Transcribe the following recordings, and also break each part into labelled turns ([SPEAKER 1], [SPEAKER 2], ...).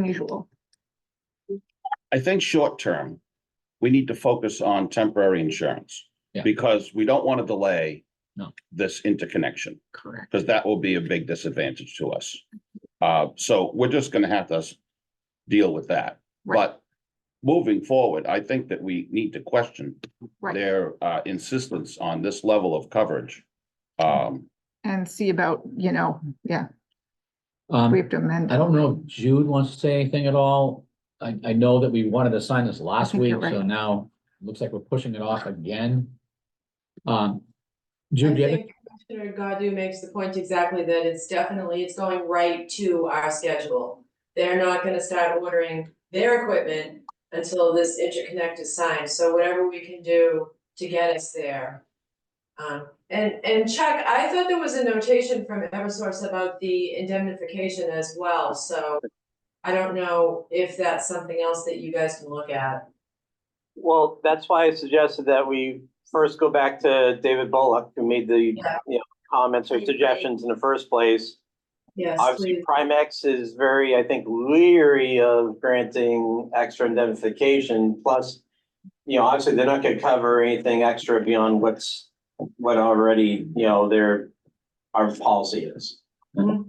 [SPEAKER 1] unusual.
[SPEAKER 2] I think short term, we need to focus on temporary insurance.
[SPEAKER 3] Yeah.
[SPEAKER 2] Because we don't want to delay.
[SPEAKER 3] No.
[SPEAKER 2] This interconnection,
[SPEAKER 3] Correct.
[SPEAKER 2] because that will be a big disadvantage to us. Uh, so we're just gonna have to s- deal with that.
[SPEAKER 1] Right.
[SPEAKER 2] But moving forward, I think that we need to question
[SPEAKER 1] Right.
[SPEAKER 2] their uh insistence on this level of coverage.
[SPEAKER 3] Mm-hmm.
[SPEAKER 2] Um,
[SPEAKER 1] And see about, you know, yeah, we
[SPEAKER 3] Um,
[SPEAKER 1] have to amend.
[SPEAKER 3] I don't know if Jude wants to say anything at all. I, I know that we wanted to sign this last
[SPEAKER 1] think
[SPEAKER 3] week,
[SPEAKER 1] you're
[SPEAKER 3] so
[SPEAKER 1] right.
[SPEAKER 3] now it looks like we're pushing it off again. Um,
[SPEAKER 4] I
[SPEAKER 3] Jude, do you have any-
[SPEAKER 4] think Commissioner Godu makes the point exactly that it's definitely, it's going right to our schedule. They're not gonna start ordering their equipment until this interconnect is signed, so whatever we can do to get us there. Um, and, and Chuck, I thought there was a notation from Eversource about the indemnification as well, so I don't know if that's something else that you guys can look at.
[SPEAKER 5] Well, that's why I suggested that we first go back to David Bullock, who made the,
[SPEAKER 4] Yeah.
[SPEAKER 5] you know, comments or suggestions in the first place.
[SPEAKER 4] Yes,
[SPEAKER 5] Obviously,
[SPEAKER 4] please.
[SPEAKER 5] Primex is very, I think, leery of granting extra indemnification, plus, you know, obviously, they're not gonna cover anything extra beyond what's, what already, you know, their, our policy is.
[SPEAKER 3] all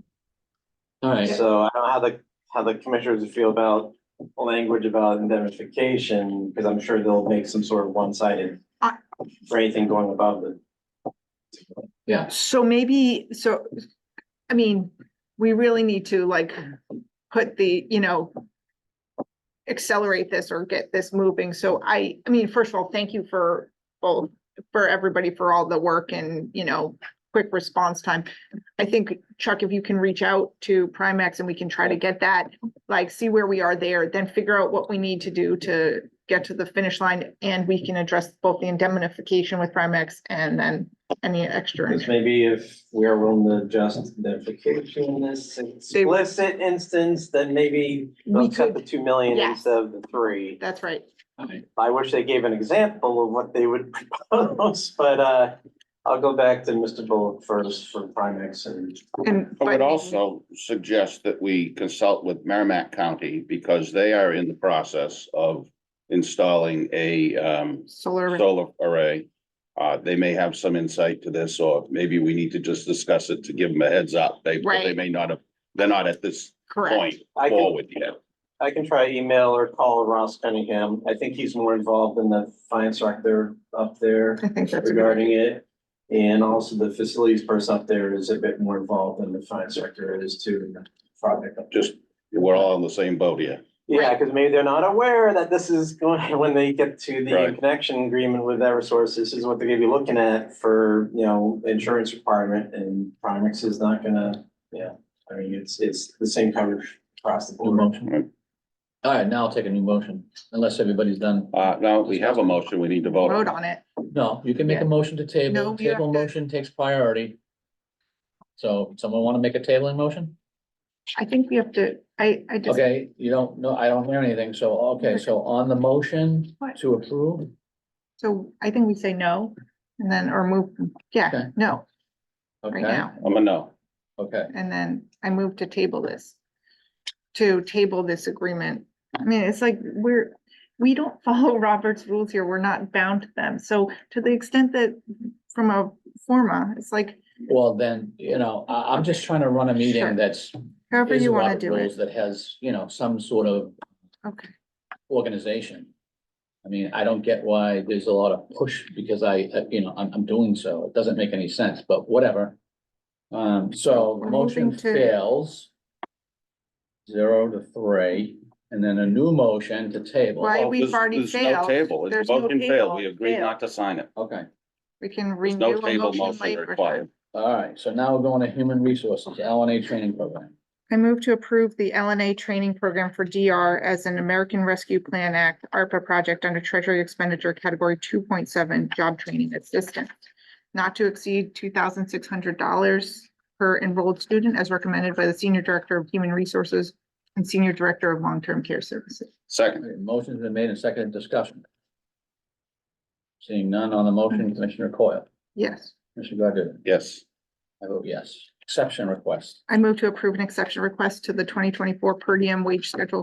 [SPEAKER 3] right,
[SPEAKER 5] So I don't know how the, how the commissioners feel about language about indemnification, because I'm sure they'll make some sort of one-sided
[SPEAKER 1] I-
[SPEAKER 5] for anything going above it.
[SPEAKER 3] yeah,
[SPEAKER 1] So maybe, so, I mean, we really need to like, put the, you know, accelerate this or get this moving. So I, I mean, first of all, thank you for both, for everybody for all the work and, you know, quick response time. I think Chuck, if you can reach out to Primex and we can try to get that, like, see where we are there, then figure out what we need to do to get to the finish line and we can address both the indemnification with Primex and then any extra.
[SPEAKER 5] Because maybe if we are willing to adjust indemnification in this
[SPEAKER 1] They would-
[SPEAKER 5] explicit instance, then maybe
[SPEAKER 1] We
[SPEAKER 5] they'll cut the
[SPEAKER 1] could,
[SPEAKER 5] two million
[SPEAKER 1] yes.
[SPEAKER 5] instead of the three.
[SPEAKER 1] that's right.
[SPEAKER 3] all right,
[SPEAKER 5] I wish they gave an example of what they would propose, but, uh, I'll go back to Mr. Bullock first for Primex and
[SPEAKER 1] And.
[SPEAKER 2] I
[SPEAKER 1] but
[SPEAKER 2] would
[SPEAKER 1] maybe-
[SPEAKER 2] also suggest that we consult with Merrimack County because they are in the process of installing a um
[SPEAKER 1] Solar.
[SPEAKER 2] solar array. Uh, they may have some insight to this, or maybe we need to just discuss it to give them a heads up. They, they
[SPEAKER 1] Right.
[SPEAKER 2] may not have, they're not at this
[SPEAKER 1] Correct.
[SPEAKER 2] point
[SPEAKER 5] I can-
[SPEAKER 2] forward yet.
[SPEAKER 5] I can try email or call Ross Cunningham. I think he's more involved in the finance director up there
[SPEAKER 1] I think that's. a good-
[SPEAKER 5] regarding it. And also the facilities person up there is a bit more involved than the finance director is too in the project. up there.
[SPEAKER 2] Just, we're all on the same boat here.
[SPEAKER 5] Yeah, because maybe they're not aware that this is going, when they get to the
[SPEAKER 2] Right.
[SPEAKER 5] connection agreement with Eversource, this is what they're gonna be looking at for, you know, insurance requirement and Primex is not gonna, yeah. I mean, it's, it's the same coverage across the
[SPEAKER 3] new
[SPEAKER 5] board.
[SPEAKER 3] motion. All right, now I'll take a new motion, unless everybody's done.
[SPEAKER 2] Uh, now we have a motion, we need to vote.
[SPEAKER 1] Vote
[SPEAKER 2] on.
[SPEAKER 1] on it.
[SPEAKER 3] No, you can make a
[SPEAKER 1] Yeah.
[SPEAKER 3] motion to
[SPEAKER 1] No,
[SPEAKER 3] table,
[SPEAKER 1] we have
[SPEAKER 3] table
[SPEAKER 1] to-
[SPEAKER 3] motion takes priority. So someone want to make a tabling motion?
[SPEAKER 1] I think we have to, I, I just,
[SPEAKER 3] Okay, you don't, no, I don't hear anything, so, okay, so on the motion
[SPEAKER 1] What?
[SPEAKER 3] to approve,
[SPEAKER 1] so I think we say no and then, or move, yeah,
[SPEAKER 3] Okay.
[SPEAKER 1] no, right
[SPEAKER 3] okay,
[SPEAKER 1] now.
[SPEAKER 2] I'm a no.
[SPEAKER 3] okay.
[SPEAKER 1] And then I move to table this. To table this agreement. I mean, it's like, we're, we don't follow Robert's rules here. We're not bound to them. So to the extent that from a forma, it's like
[SPEAKER 3] Well, then, you know, I, I'm just trying to run a
[SPEAKER 1] Sure.
[SPEAKER 3] meeting that's.
[SPEAKER 1] however
[SPEAKER 3] is
[SPEAKER 1] you want
[SPEAKER 3] Robert
[SPEAKER 1] to do it.
[SPEAKER 3] rules That has, you know, some sort of
[SPEAKER 1] Okay,
[SPEAKER 3] organization. I mean, I don't get why there's a lot of push because I, uh, you know, I'm, I'm doing so. It doesn't make any sense, but whatever. Um, so
[SPEAKER 1] We're
[SPEAKER 3] motion
[SPEAKER 1] moving to-
[SPEAKER 3] fails. Zero to three, and then a new motion to table.
[SPEAKER 1] Why- Hey,
[SPEAKER 2] Oh,
[SPEAKER 1] we've
[SPEAKER 2] there's-
[SPEAKER 1] already
[SPEAKER 2] there's no
[SPEAKER 1] failed.
[SPEAKER 2] Table, it's
[SPEAKER 1] There's no
[SPEAKER 2] motion failed,
[SPEAKER 1] table.
[SPEAKER 2] we agreed not to sign it.
[SPEAKER 3] Okay,
[SPEAKER 1] we can
[SPEAKER 2] There's
[SPEAKER 1] renew
[SPEAKER 2] no
[SPEAKER 1] a
[SPEAKER 2] table
[SPEAKER 1] motion
[SPEAKER 2] motion
[SPEAKER 1] later.
[SPEAKER 2] required.
[SPEAKER 3] all right. So now we're going to human resources, L and A training program.
[SPEAKER 1] I move to approve the LNA training program for DR as an American Rescue Plan Act ARPA project under Treasury Expenditure Category two point seven, Job Training Assistant. Not to exceed two thousand six hundred dollars per enrolled student as recommended by the Senior Director of Human Resources and Senior Director of Long-Term Care Services.
[SPEAKER 2] Second,
[SPEAKER 3] Okay, Motion's been made and seconded discussion. Seeing none on the motion, Commissioner Coyle,
[SPEAKER 1] Yes,
[SPEAKER 3] Commissioner Godu,
[SPEAKER 2] yes.
[SPEAKER 3] I vote yes. exception request.
[SPEAKER 1] I move to approve an exception request to the twenty twenty-four per diem wage schedule